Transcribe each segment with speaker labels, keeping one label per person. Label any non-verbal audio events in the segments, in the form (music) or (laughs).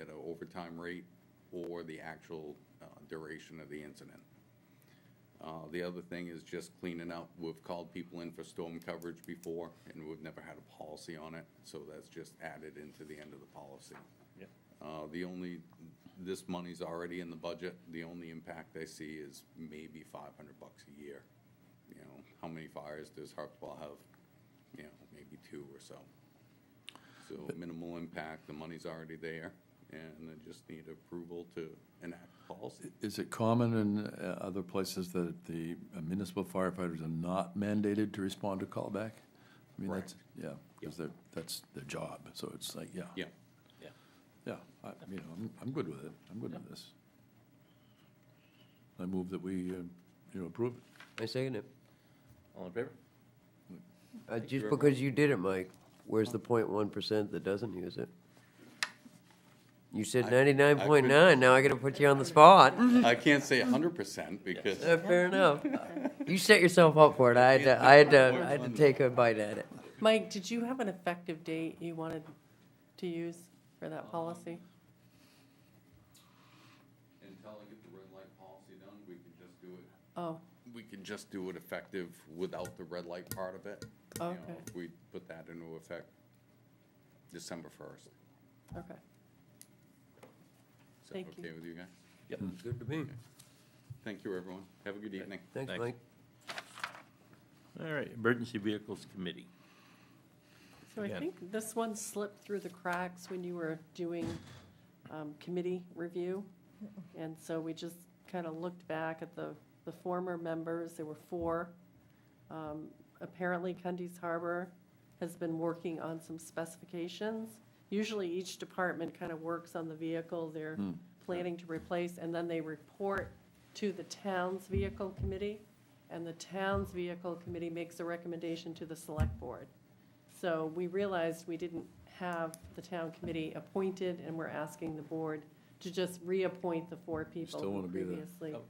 Speaker 1: at an overtime rate or the actual uh, duration of the incident. Uh, The other thing is just cleaning up. We've called people in for storm coverage before, and we've never had a policy on it, so that's just added into the end of the policy.
Speaker 2: Yep.
Speaker 1: Uh, The only, this money's already in the budget. The only impact I see is maybe five hundred bucks a year. You know, how many fires does Harpswell have? You know, maybe two or so. So minimal impact, the money's already there, and I just need approval to enact policy.
Speaker 3: Is it common in uh, other places that the municipal firefighters are not mandated to respond to callback? I mean, that's, yeah, because they're, that's their job, so it's like, yeah.
Speaker 1: Yeah,
Speaker 2: Yeah.
Speaker 3: Yeah, I, you know, I'm, I'm good with it, I'm good with this. I move that we, uh, you know, approve it.
Speaker 4: I second it.
Speaker 2: All in favor?
Speaker 4: Uh,
Speaker 2: very
Speaker 4: Just
Speaker 2: much.
Speaker 4: because you did it, Mike, where's the point one percent that doesn't use it? You said ninety-nine point nine, now I gotta put you on the spot. (laughs)
Speaker 1: I can't say hundred percent because
Speaker 4: Uh, Fair enough. You set yourself up for it, I had to, I had to, I had to take a bite at it.
Speaker 5: Mike, did you have an effective date you wanted to use for that policy?
Speaker 1: until I get the red light policy done, we can just do it
Speaker 5: Oh,
Speaker 1: we can just do it effective without the red light part of it. You know,
Speaker 5: Okay.
Speaker 1: if We put that into effect December first.
Speaker 5: okay.
Speaker 1: Is that
Speaker 5: Thank you.
Speaker 1: okay with you guys?
Speaker 2: Yep.
Speaker 4: Good to me.
Speaker 1: Thank you, everyone. Have a good evening.
Speaker 4: Thanks,
Speaker 2: Thanks.
Speaker 4: Mike.
Speaker 2: All right, Emergency Vehicles Committee.
Speaker 5: So I
Speaker 2: Again.
Speaker 5: think this one slipped through the cracks when you were doing um, committee review. And so we just kind of looked back at the, the former members, there were four. Um, Apparently, Cundy's Harbor has been working on some specifications. Usually, each department kind of works on the vehicle they're
Speaker 3: Hmm.
Speaker 5: planning to replace, and then they report to the town's vehicle committee, and the town's vehicle committee makes a recommendation to the select board. So we realized we didn't have the town committee appointed, and we're asking the board to just reappoint the four people
Speaker 3: Still
Speaker 5: who
Speaker 3: wanna be the-
Speaker 5: previously
Speaker 2: Oh.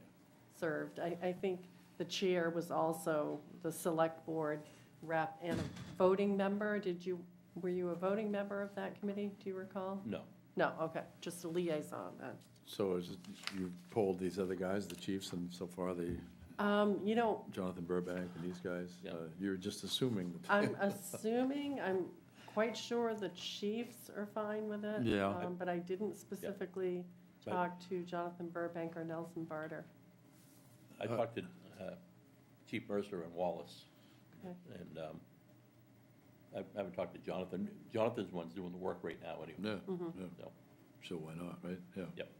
Speaker 5: served. I, I think the chair was also the select board rep and a voting member. Did you, were you a voting member of that committee, do you recall?
Speaker 2: No.
Speaker 5: No, okay, just a liaison then.
Speaker 3: So is, it- you polled these other guys, the chiefs, and so far the
Speaker 5: Um, you know,
Speaker 3: Jonathan Burbank and these guys?
Speaker 2: Yeah.
Speaker 3: uh, You're just assuming. that- (laughs)
Speaker 5: I'm assuming, I'm quite sure the chiefs are fine with it.
Speaker 3: Yeah.
Speaker 5: um, But I didn't specifically
Speaker 2: But-
Speaker 5: talk to Jonathan Burbank or Nelson Barter.
Speaker 2: I talked to uh, Chief Mercer and Wallace,
Speaker 5: Okay.
Speaker 2: and um, I I haven't talked to Jonathan. Jonathan's one's doing the work right now anyway.
Speaker 3: Yeah, yeah,
Speaker 2: So,
Speaker 3: so why not, right? Yeah.
Speaker 2: yep,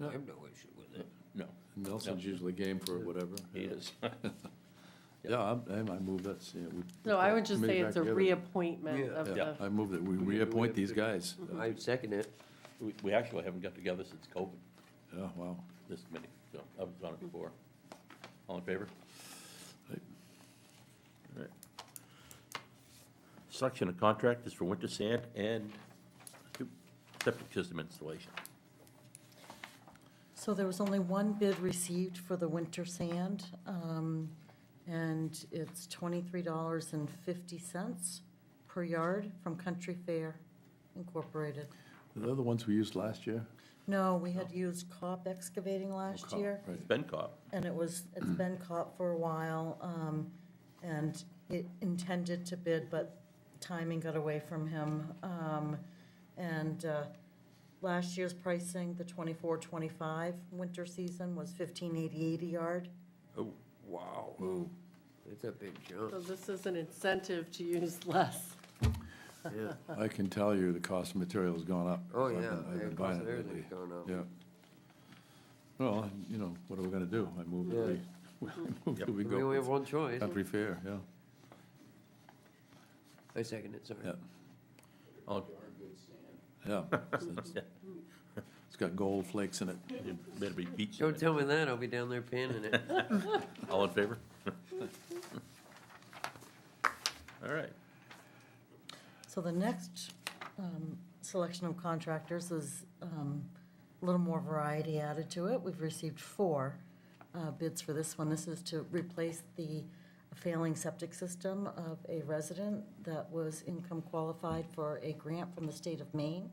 Speaker 4: I have no issue with it.
Speaker 2: no,
Speaker 3: Nelson's
Speaker 2: Yeah.
Speaker 3: usually game for whatever.
Speaker 2: he
Speaker 3: yeah.
Speaker 2: is. (laughs)
Speaker 3: Yeah, I'm- I'm- I move that's, yeah. we-
Speaker 5: No, I would just
Speaker 3: committee
Speaker 5: say
Speaker 3: back
Speaker 5: it's a
Speaker 3: together.
Speaker 5: reappointment
Speaker 4: Yeah.
Speaker 5: of
Speaker 2: Yeah.
Speaker 5: the,
Speaker 3: I move that we
Speaker 4: We- we
Speaker 3: reappoint
Speaker 4: have
Speaker 3: these
Speaker 4: to-
Speaker 3: guys.
Speaker 4: I second it.
Speaker 2: We- We actually haven't got together since COVID,
Speaker 3: Yeah, wow.
Speaker 2: this committee, so I was on it before. All in favor?
Speaker 3: Right.
Speaker 2: All right. Selection of contractors for winter sand and septic system installation.
Speaker 6: So there was only one bid received for the winter sand, um, and it's twenty-three dollars and fifty cents per yard from Country Fair Incorporated.
Speaker 3: Were they the ones we used last year?
Speaker 6: No, we had used COP excavating last
Speaker 3: Cop,
Speaker 6: year,
Speaker 3: right.
Speaker 2: It's been caught.
Speaker 6: and it was, it's been COP for a while, um, and it intended to bid, but timing got away from him. Um, and, uh, last year's pricing, the twenty-four, twenty-five winter season was fifteen eighty-eight a yard.
Speaker 2: Oh,
Speaker 4: Wow. Mm. It's a big
Speaker 5: so
Speaker 4: jump.
Speaker 5: this is an incentive to use less.
Speaker 4: Yeah.
Speaker 3: I can tell you the cost of material's gone up.
Speaker 4: Oh,
Speaker 3: I've been-
Speaker 4: yeah.
Speaker 3: I've been
Speaker 4: Of
Speaker 3: buying
Speaker 4: course,
Speaker 3: it lately.
Speaker 4: everything's gone up.
Speaker 3: Yeah. Well, you know, what are we gonna do? I move that
Speaker 4: Yeah.
Speaker 3: (laughs) we, I move that we
Speaker 4: We only have
Speaker 3: go
Speaker 4: one choice.
Speaker 3: country fair, yeah,
Speaker 4: I second it, sorry.
Speaker 3: yeah,
Speaker 2: all-
Speaker 3: yeah. It's- It's got gold flakes in it.
Speaker 2: it better be beach
Speaker 4: Don't
Speaker 2: sand.
Speaker 4: tell me that, I'll be down there panning it.
Speaker 2: All in
Speaker 4: (laughs)
Speaker 2: favor? All right.
Speaker 6: So the next um, selection of contractors is um, a little more variety added to it. We've received four uh, bids for this one. This is to replace the failing septic system of a resident that was income qualified for a grant from the state of Maine.